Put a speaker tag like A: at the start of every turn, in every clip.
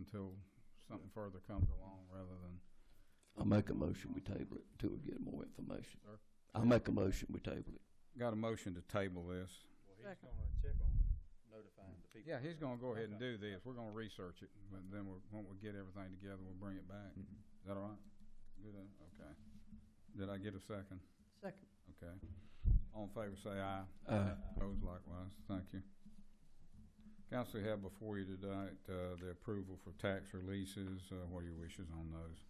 A: until something further comes along rather than,
B: I make a motion, we table it until we get more information.
A: Sir?
B: I make a motion, we table it.
A: got a motion to table this.
C: Well, he's
D: Second.
C: gonna check on notifying the people.
A: Yeah, he's gonna go ahead and do
C: Okay.
A: this. We're gonna research it, but then we'll, when we get everything together, we'll bring it back. Is that all right? Good, uh, okay. Did I get a second?
D: Second.
A: Okay. All in favor, say aye.
C: Uh,
B: Aye.
A: Opposed likewise. Thank you. Council, you have before you tonight, uh, the approval for tax releases. Uh, what are your wishes on those?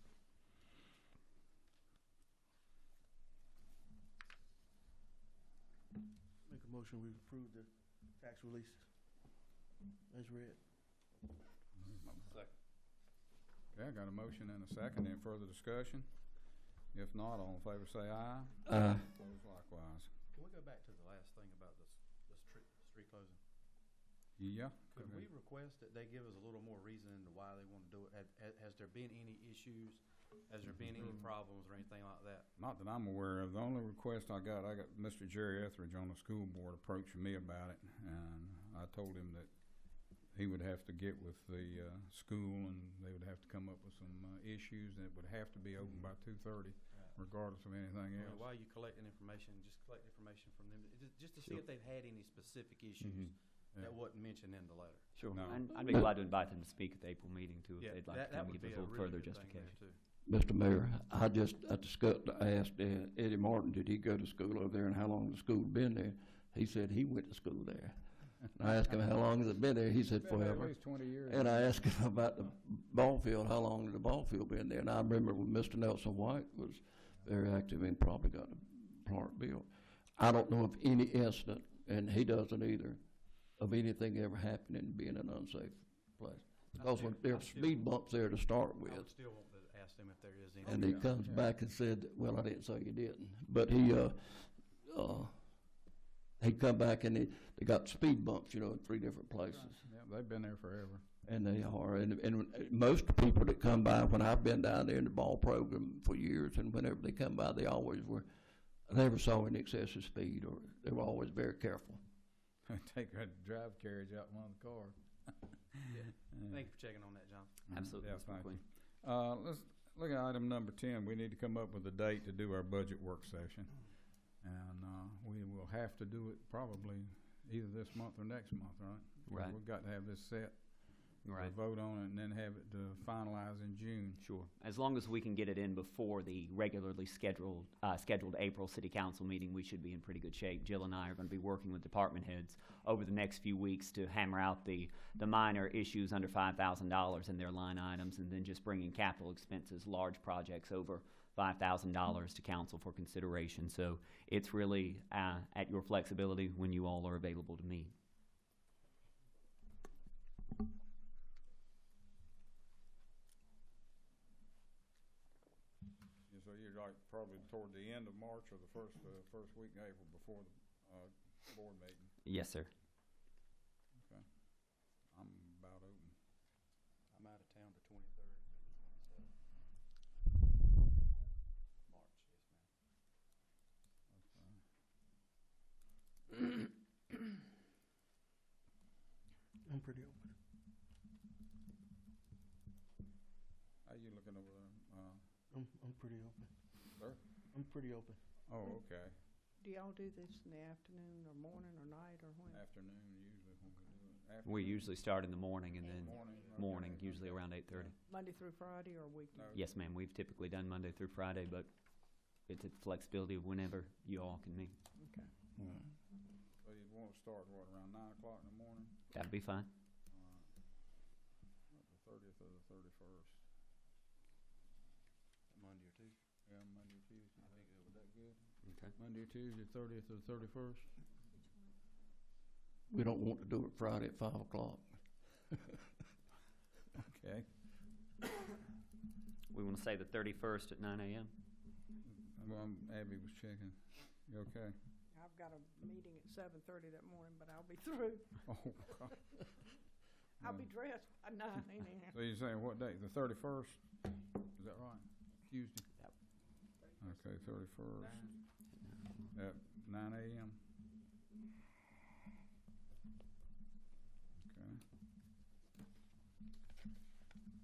E: Make a motion, we approve the tax releases as read.
A: Okay, I got a motion and a second. Any further discussion? If not, all in favor, say aye.
B: Aye.
A: Opposed likewise.
C: Can we go back to the last thing about this, this street, street closing?
A: Yeah.
C: Could we request that they give us a little more reason to why they wanna do it? Had- Has, has there been any issues? Has there been
A: Mm-hmm.
C: any problems or anything like that?
A: Not that I'm aware of. The only request I got, I got Mr. Jerry Etheridge on the school board approaching me about it, and I told him that he would have to get with the uh, school, and they would have to come up with some uh, issues, and it would have to be open by two thirty, regardless of anything
C: I mean,
A: else.
C: Why are you collecting information? Just collect information from them, ju- just to see if they've had any specific issues
A: Mm-hmm. Yeah.
C: that wasn't mentioned in the letter.
F: Sure.
A: No.
F: And I'd be glad to invite them to speak at the April meeting too,
C: Yeah,
F: if they'd like
C: that-
F: to
C: that
F: come
C: would
F: and give
C: be
F: us a little further
C: really good thing there,
F: justification.
B: Mr.
C: too.
B: Mayor, I just, I discussed, I asked uh, Eddie Martin, did he go to school over there and how long the school been there? He said he went to school there. And I asked him, how long has it been there? He said
A: Been there At
B: forever.
A: least twenty years.
B: And I asked him about the ball field, how long had the ball field been there? And I remember when Mr. Nelson White was very active and probably got the park built. I don't know of any incident, and he doesn't either, of anything ever happening being an unsafe place. Because when there were speed bumps there to start
C: I would
B: with,
C: still want to ask them if there is any.
B: and he comes back and said, well, I didn't say you didn't, but he, uh, uh, he come back and they, they got speed bumps, you know, in three different places.
A: Yeah, they've been there forever.
B: And they are, and, and most people that come by, when I've been down there in the ball program for years, and whenever they come by, they always were, I never saw any excessive speed, or they were always very careful.
A: Take a drive carriage out in one of the cars.
C: Thank you for checking on that, John.
F: Absolutely,
A: Yeah,
F: Mr.
A: thank you.
F: McQueen.
A: Uh, let's look at item number ten. We need to come up with a date to do our budget work session. And, uh, we will have to do it probably either this month or next month, right? 'Cause
F: Right.
A: We've got to have this set.
F: You're
A: to
F: Right,
A: Vote on it and then have it uh, finalized in June.
F: sure. As long as we can get it in before the regularly scheduled, uh, scheduled April City Council meeting, we should be in pretty good shape. Jill and I are going to be working with department heads over the next few weeks to hammer out the, the minor issues under five thousand dollars in their line items, and then just bringing capital expenses, large projects over five thousand dollars to council for consideration. So it's really, uh, at your flexibility when you all are available to meet.
A: Yeah, So you're like probably toward the end of March or the first, uh, first week in April before the, uh, board meeting.
F: Yes, sir.
A: I'm about open.
C: I'm out of town the twenty-third, twenty-seventh. March, yes, ma'am.
E: I'm pretty open.
A: How you looking over there? Uh,
E: I'm, I'm pretty open.
A: Sir?
E: I'm pretty open.
A: oh, okay.
D: Do y'all do this in the afternoon or morning or night or when?
A: Afternoon usually when we do it.
F: We
A: Afternoon,
F: usually start in the morning and then
A: Morning. okay,
F: morning, usually
A: okay.
F: around 8:30.
D: Monday through Friday or
A: No.
D: weekend?
F: Yes, ma'am, we've typically done Monday through Friday, but it's a flexibility of whenever you all can meet.
D: Okay.
A: So you'd want to start, what, around nine o'clock in the morning?
F: That'd be fine.
A: Not The thirtieth or the thirty-first?
C: Monday or Tuesday.
A: Yeah, Monday or Tuesday.
C: I think it
A: Is
C: would-
A: that good?
F: Okay.
A: Monday or Tuesday, thirtieth or thirty-first?
B: We don't want to do it Friday at five o'clock.
A: Okay.
F: We want to say the 31st at 9 a.m.?
A: Well, I'm- Abby was checking. You okay?
D: I've got a meeting at seven thirty that morning, but I'll be through.
A: Oh, God.
D: I'll be dressed by nine anyhow.
A: So you're saying what date? The thirty-first? Is that right? Tuesday?
F: Yep.
A: Okay, thirty-first. At nine AM?